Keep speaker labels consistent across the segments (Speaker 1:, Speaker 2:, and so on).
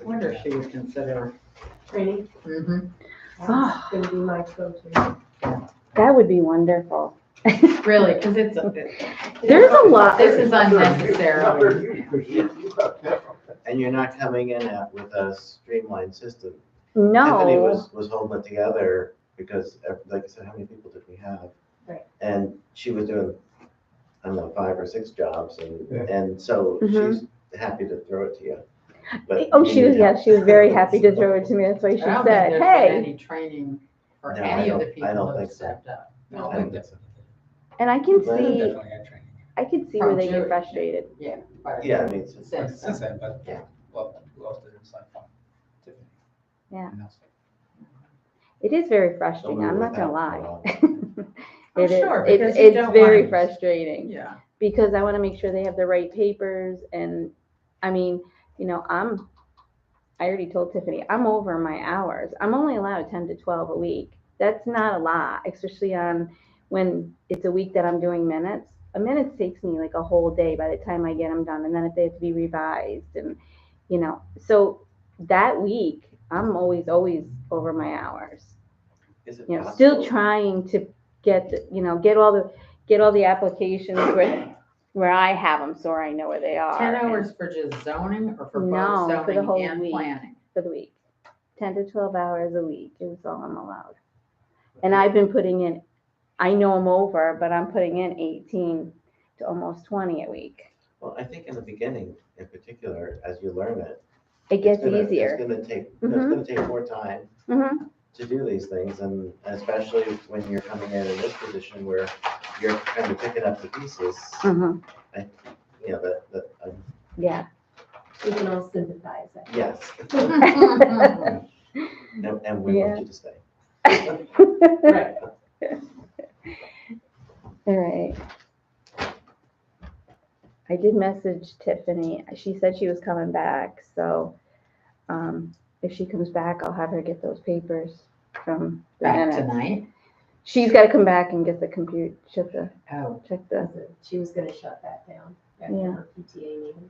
Speaker 1: I wonder if she would consider.
Speaker 2: Training,
Speaker 1: Mhm.
Speaker 2: that's gonna be my go-to.
Speaker 3: That would be wonderful.
Speaker 4: Really, because it's, a-
Speaker 3: There's a lot.
Speaker 4: this is unnecessary.
Speaker 5: And you're not coming in at- with a streamlined system. Anthony
Speaker 3: No,
Speaker 5: was, was holding it together because, uh, like I said, how many people did we have?
Speaker 2: Right.
Speaker 5: And she was doing, I don't know, five or six jobs and,
Speaker 6: Yeah.
Speaker 5: and so
Speaker 3: Mhm.
Speaker 5: she's happy to throw it to you. But
Speaker 3: oh,
Speaker 5: you
Speaker 3: she was,
Speaker 5: need
Speaker 3: yeah,
Speaker 5: help.
Speaker 3: she was very happy to throw it to me. That's why she
Speaker 1: I don't think there's
Speaker 3: said,
Speaker 1: been
Speaker 3: hey.
Speaker 1: Any training for
Speaker 5: No, I
Speaker 1: any of the
Speaker 5: don't- I
Speaker 1: people
Speaker 5: don't
Speaker 1: who have
Speaker 5: think so.
Speaker 1: stepped up.
Speaker 5: I don't think that's-
Speaker 3: And I can
Speaker 5: Well,
Speaker 3: see,
Speaker 6: Definitely had training.
Speaker 3: I can see
Speaker 1: From
Speaker 3: where they
Speaker 1: Jerry.
Speaker 3: get frustrated.
Speaker 1: Yeah. but-
Speaker 5: Yeah, I mean, it's-
Speaker 1: Since-
Speaker 6: Since then, but
Speaker 5: Yeah.
Speaker 6: well, who else did it aside from Tiffany?
Speaker 3: Yeah.
Speaker 6: And that's-
Speaker 3: It is very
Speaker 5: so
Speaker 3: frustrating.
Speaker 5: we
Speaker 3: I'm
Speaker 5: were
Speaker 3: not gonna
Speaker 5: without for a
Speaker 3: lie.
Speaker 5: while.
Speaker 3: It is,
Speaker 4: sure,
Speaker 3: it's,
Speaker 4: because you
Speaker 3: it's
Speaker 4: don't
Speaker 3: very
Speaker 4: want-
Speaker 3: frustrating.
Speaker 4: Yeah.
Speaker 3: because I want to make sure they have the right papers. And I mean, you know, I'm, I already told Tiffany, I'm over my hours. I'm only allowed 10 to 12 a week. That's not a lot, especially on when it's a week that I'm doing minutes. A minute takes me like a whole day by the time I get them done. And then if they have to be revised and, you know, so that week, I'm always, always over my hours
Speaker 5: Is it
Speaker 3: you know, still
Speaker 5: possible?
Speaker 3: trying to get, the- you know, get all the, get all the applications where, where I have them, so I know where they are.
Speaker 1: Ten
Speaker 3: and-
Speaker 1: hours for just zoning or for
Speaker 3: No,
Speaker 1: both
Speaker 3: for the
Speaker 1: zoning
Speaker 3: whole
Speaker 1: and
Speaker 3: week.
Speaker 1: planning?
Speaker 3: For the week, ten to twelve hours a week is all I'm allowed. And I've been putting in, I know I'm over, but I'm putting in eighteen to almost twenty a week.
Speaker 5: Well, I think in the beginning, in particular, as you learn it.
Speaker 3: It
Speaker 5: it's
Speaker 3: gets
Speaker 5: gonna- It's
Speaker 3: easier.
Speaker 5: gonna take, no, it's
Speaker 3: Mhm.
Speaker 5: gonna take more time
Speaker 3: Mhm.
Speaker 5: to do these things, and especially when you're coming in in this position where you're kind of picking up the pieces,
Speaker 1: Mm-hmm.
Speaker 3: Mhm.
Speaker 5: you know, that, that, um,
Speaker 3: Yeah,
Speaker 2: We can all sympathize. I think.
Speaker 5: yes, and, and we want you to stay.
Speaker 1: Right.
Speaker 3: all right. I did message Tiffany. She said she was coming back, so um, if she comes back, I'll have her get those papers from the
Speaker 1: Back
Speaker 3: minutes.
Speaker 1: tonight?
Speaker 3: She's got to come back and get the computer, check the,
Speaker 1: Oh,
Speaker 3: check the,
Speaker 2: She was gonna shut that down after
Speaker 3: Yeah.
Speaker 2: her PTA meeting.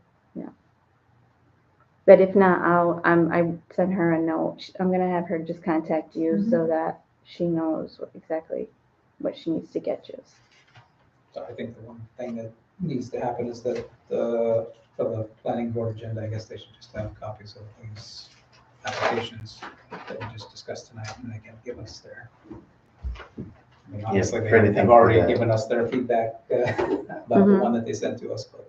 Speaker 3: but if not, I'll, I'm, I sent her a note. Sh- I'm gonna have her just contact you so that she knows what- exactly what she needs to get you.
Speaker 6: So I think the one thing that needs to happen is that the, for the planning board agenda, I guess they should just have copies of these applications that we just discussed tonight, and they can give us their. I mean, Honestly,
Speaker 5: for
Speaker 6: they
Speaker 5: anything
Speaker 6: have
Speaker 5: for
Speaker 6: already
Speaker 5: that.
Speaker 6: given us their feedback uh, about the
Speaker 3: Mhm.
Speaker 6: one that they sent to us, but.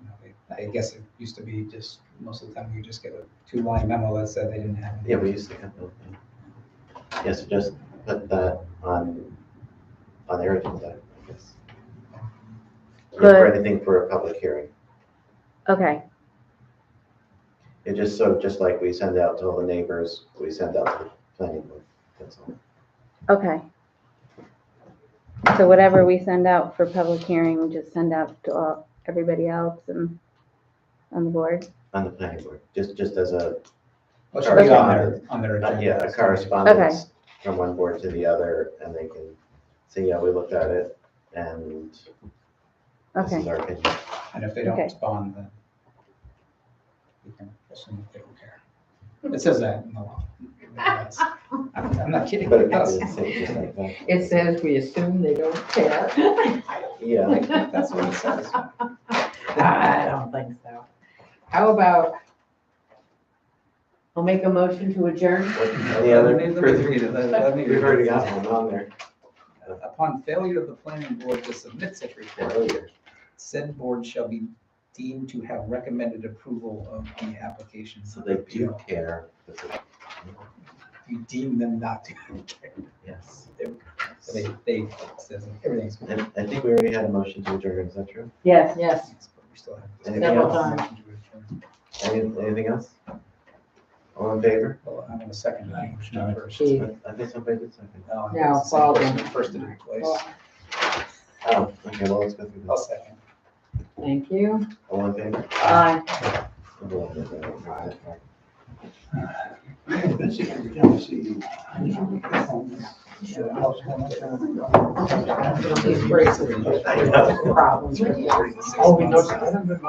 Speaker 6: you know, they- I guess it used to be just, most of the time, you just get a two-line memo that said they didn't have. any.
Speaker 5: Yeah, we used to have those. Yes, just put that on, on their agenda, I guess. Yeah, For
Speaker 3: Good.
Speaker 5: anything for a public hearing.
Speaker 3: Okay,
Speaker 5: It just so, just like we send out to all the neighbors, we send out to the planning board, that's all.
Speaker 3: okay. So whatever we send out for public hearing, just send out to all, everybody else and on the board.
Speaker 5: On the planning board, just, just as a,
Speaker 6: Well, it should be on their, on their
Speaker 5: uh,
Speaker 6: agenda.
Speaker 5: yeah, a correspondence from one board to the other, and they can say, yeah, we looked at it, and this is
Speaker 3: Okay,
Speaker 5: our opinion.
Speaker 6: And if they don't
Speaker 3: Okay.
Speaker 6: respond, then we can assume that they don't care. It says that in the law. That's- I'm I'm not kidding.
Speaker 5: But it
Speaker 6: it
Speaker 5: does
Speaker 6: does.
Speaker 5: say it just like that.
Speaker 1: it says we assume they don't care.
Speaker 5: Yeah,
Speaker 6: That's what it says.
Speaker 1: I don't think so. How about,
Speaker 4: I'll make a motion to adjourn.
Speaker 5: What- any other? We've
Speaker 6: We've
Speaker 5: already got one on there
Speaker 6: Upon failure of the planning board to submit such report,
Speaker 5: earlier.
Speaker 6: said board shall be deemed to have recommended approval of the application.
Speaker 5: So they do care. This is-
Speaker 6: You deem them not to.
Speaker 5: Yes.
Speaker 6: So They, they, says everything's.
Speaker 5: I, I think we already had a motion to adjourn, is that true?
Speaker 4: Yes.
Speaker 1: yes,
Speaker 6: We still have-
Speaker 5: Anything
Speaker 1: Several
Speaker 5: else? Any- Anything else? All in favor?
Speaker 6: Well, I'm gonna second that motion
Speaker 1: No.
Speaker 6: first.
Speaker 1: Gee.
Speaker 5: I I think somebody did something.
Speaker 6: No, I'm
Speaker 1: No,
Speaker 6: gonna second
Speaker 1: well,
Speaker 6: motion
Speaker 1: then.
Speaker 6: First in place.
Speaker 1: Well,
Speaker 5: Oh, okay, well, let's go through
Speaker 6: I'll
Speaker 5: this.
Speaker 6: second.
Speaker 1: thank you.
Speaker 5: All in favor?
Speaker 1: Bye.
Speaker 5: Everyone, everyone, everyone.
Speaker 6: Betsy, every time I see you. Oh,
Speaker 1: These breaks are the problems.
Speaker 6: we know. I haven't been by.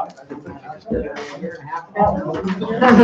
Speaker 1: Year and a half.
Speaker 6: Oh.